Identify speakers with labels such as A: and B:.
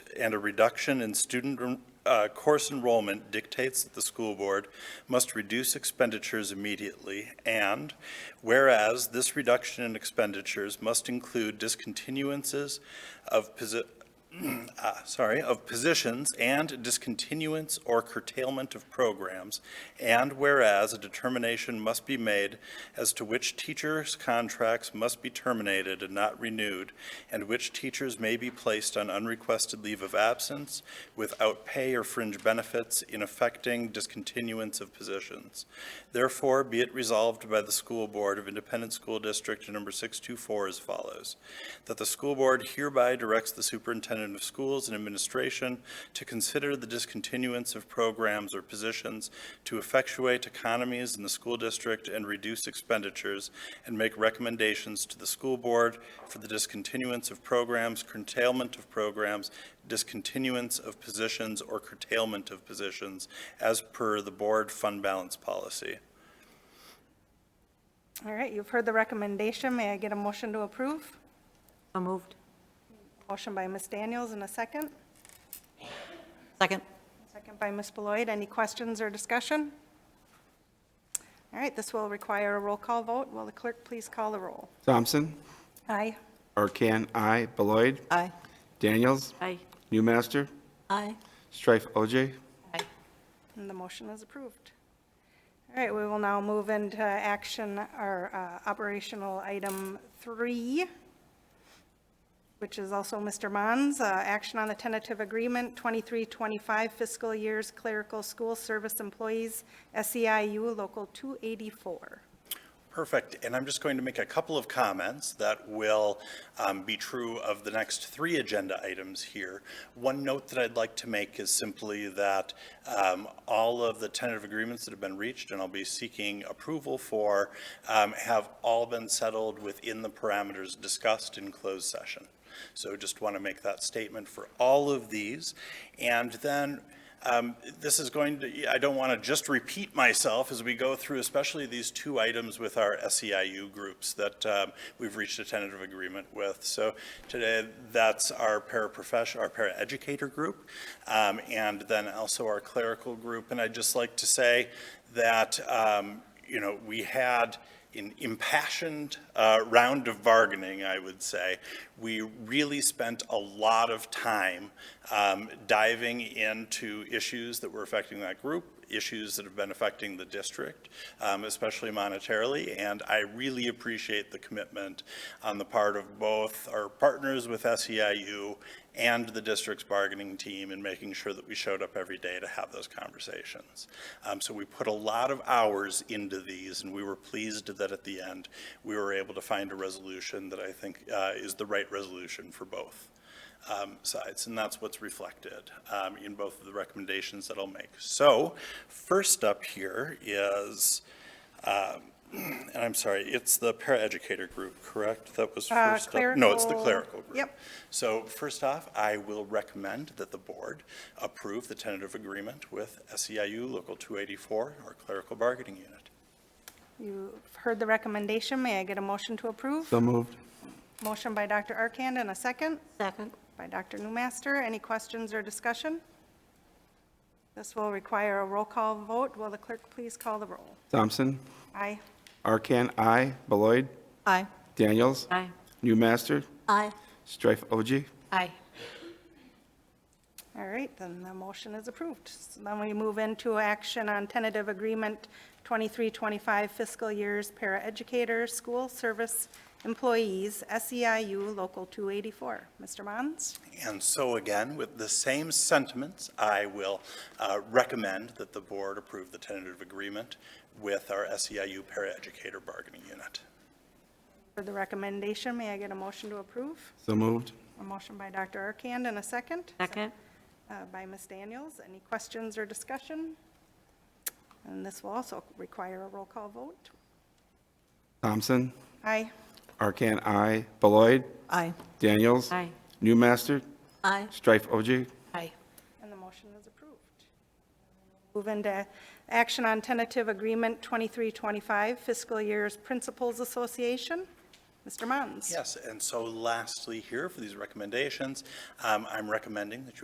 A: and a reduction in student uh, course enrollment dictates that the school board must reduce expenditures immediately, and whereas this reduction in expenditures must include discontinuances of posi- ah, sorry, of positions and discontinuance or curtailment of programs, and whereas a determination must be made as to which teachers' contracts must be terminated and not renewed, and which teachers may be placed on unrequested leave of absence without pay or fringe benefits in affecting discontinuance of positions. Therefore, be it resolved by the School Board of Independent School District Number 624 as follows, that the school board hereby directs the superintendent of schools and administration to consider the discontinuance of programs or positions to effectuate economies in the school district and reduce expenditures, and make recommendations to the school board for the discontinuance of programs, curtailment of programs, discontinuance of positions, or curtailment of positions as per the board fund balance policy.
B: All right, you've heard the recommendation. May I get a motion to approve?
C: So moved.
B: Motion by Ms. Daniels and a second.
C: Second.
B: Second by Ms. Beloit. Any questions or discussion? All right, this will require a roll call vote. Will the clerk please call the roll?
D: Thompson,
B: Aye.
D: Arcan, I, Beloit,
C: Aye.
D: Daniels,
C: Aye.
D: Newmaster,
C: Aye.
D: Strife OJ,
C: Aye.
B: And the motion is approved. All right, we will now move into action, our uh, operational item three, which is also Mr. Mons, uh, action on the tentative agreement, 2325 fiscal years clerical school service employees, SEIU Local 284.
A: Perfect. And I'm just going to make a couple of comments that will um, be true of the next three agenda items here. One note that I'd like to make is simply that um, all of the tentative agreements that have been reached and I'll be seeking approval for um, have all been settled within the parameters discussed in closed session. So just want to make that statement for all of these. And then um, This is going to, I don't want to just repeat myself as we go through, especially these two items with our SEIU groups that um, we've reached a tentative agreement with. So today, that's our paraprofession, our paraeducator group, um, and then also our clerical group. And I'd just like to say that, um, you know, we had an impassioned uh, round of bargaining, I would say. We really spent a lot of time um, diving into issues that were affecting that group, issues that have been affecting the district, um, especially monetarily, and I really appreciate the commitment on the part of both our partners with SEIU and the district's bargaining team in making sure that we showed up every day to have those conversations. Um, So we put a lot of hours into these, and we were pleased that at the end, we were able to find a resolution that I think uh, is the right resolution for both um, sides, and that's what's reflected um, in both of the recommendations that I'll make. So first up here is, um, and I'm sorry, it's the paraeducator group, correct? That was
B: Uh,
A: first up? No, it's the
B: clerical-
A: clerical group.
B: yep.
A: So first off, I will recommend that the board approve the tentative agreement with SEIU Local 284, our clerical bargaining unit.
B: You've heard the recommendation. May I get a motion to approve?
D: so moved.
B: Motion by Dr. Arcand and a second.
C: Second.
B: by Dr. Newmaster. Any questions or discussion? This will require a roll call vote. Will the clerk please call the roll?
D: Thompson,
B: Aye.
D: Arcan, I, Beloit,
C: Aye.
D: Daniels,
C: Aye.
D: Newmaster,
C: Aye.
D: Strife OJ,
C: Aye.
B: All right, then the motion is approved. So Then we move into action on tentative agreement 2325 fiscal years paraeducator, school service employees, SEIU Local 284. Mr. Mons?
A: And so again, with the same sentiments, I will uh, recommend that the board approve the tentative agreement with our SEIU paraeducator bargaining unit.
B: For the recommendation, may I get a motion to approve?
D: so moved.
B: A motion by Dr. Arcand and a second?
C: Second.
B: uh, by Ms. Daniels. Any questions or discussion? And this will also require a roll call vote.
D: Thompson,
B: Aye.
D: Arcan, I, Beloit,
C: Aye.
D: Daniels,
C: Aye.
D: Newmaster,
C: Aye.
D: Strife OJ,
C: Aye.
B: And the motion is approved. Move into action on tentative agreement 2325 fiscal years Principals Association. Mr. Mons?
A: Yes, and so lastly here for these recommendations, um, I'm recommending that you